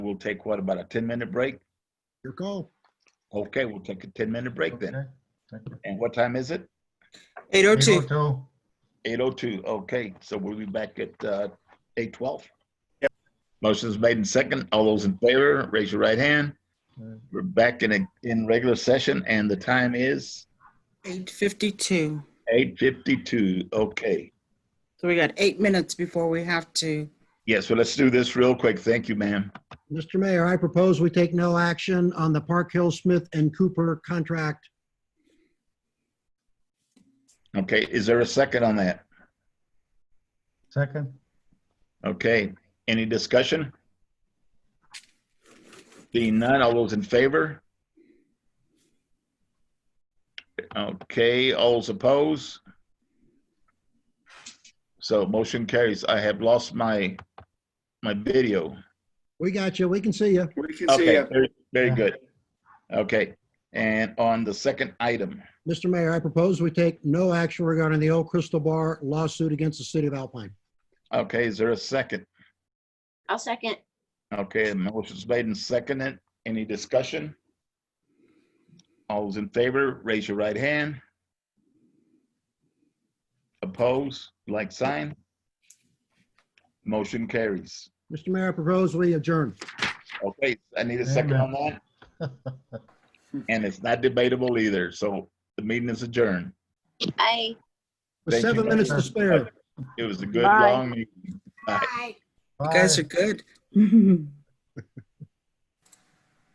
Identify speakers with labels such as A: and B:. A: We'll take what, about a 10-minute break?
B: Your call.
A: Okay, we'll take a 10-minute break then.
B: Okay, thank you.
A: And what time is it?
C: 802.
B: 8:02.
A: 8:02. Okay, so we'll be back at uh, 8:12. Motion's made in second. All those in favor, raise your right hand.
B: Alright.
A: We're back in a, in regular session and the time is
C: 852.
A: 8:52. Okay.
C: So we got eight minutes before we have to.
A: Yeah, so let's do this real quick. Thank you, ma'am.
D: Mr. Mayor, I propose we take no action on the Park Hill Smith and Cooper contract.
A: Okay, is there a second on that?
B: Second,
A: Okay, any discussion? Being none, all those in favor? Okay, all those opposed? So motion carries. I have lost my, my video.
D: We got you. We can see you.
E: We can see
A: Okay,
E: it.
A: very- very good. Okay, and on the second item,
D: Mr. Mayor, I propose we take no action regarding the Old Crystal Bar lawsuit against the city of Alpine.
A: okay, is there a second?
F: I'll second.
A: Okay, motion's made and seconded. Any discussion? All those in favor, raise your right hand. Oppose, like sign. Motion carries.
D: Mr. Mayor, I propose we adjourn.
A: Okay, I need a second on that. And it's not debatable either, so the meeting is adjourned.
F: Bye.
D: With
A: Thank you,
D: seven minutes to
B: Mayor.
D: spare.
A: It was a good,
F: Bye.
A: long meeting. Bye.
B: bye.
C: You guys are good.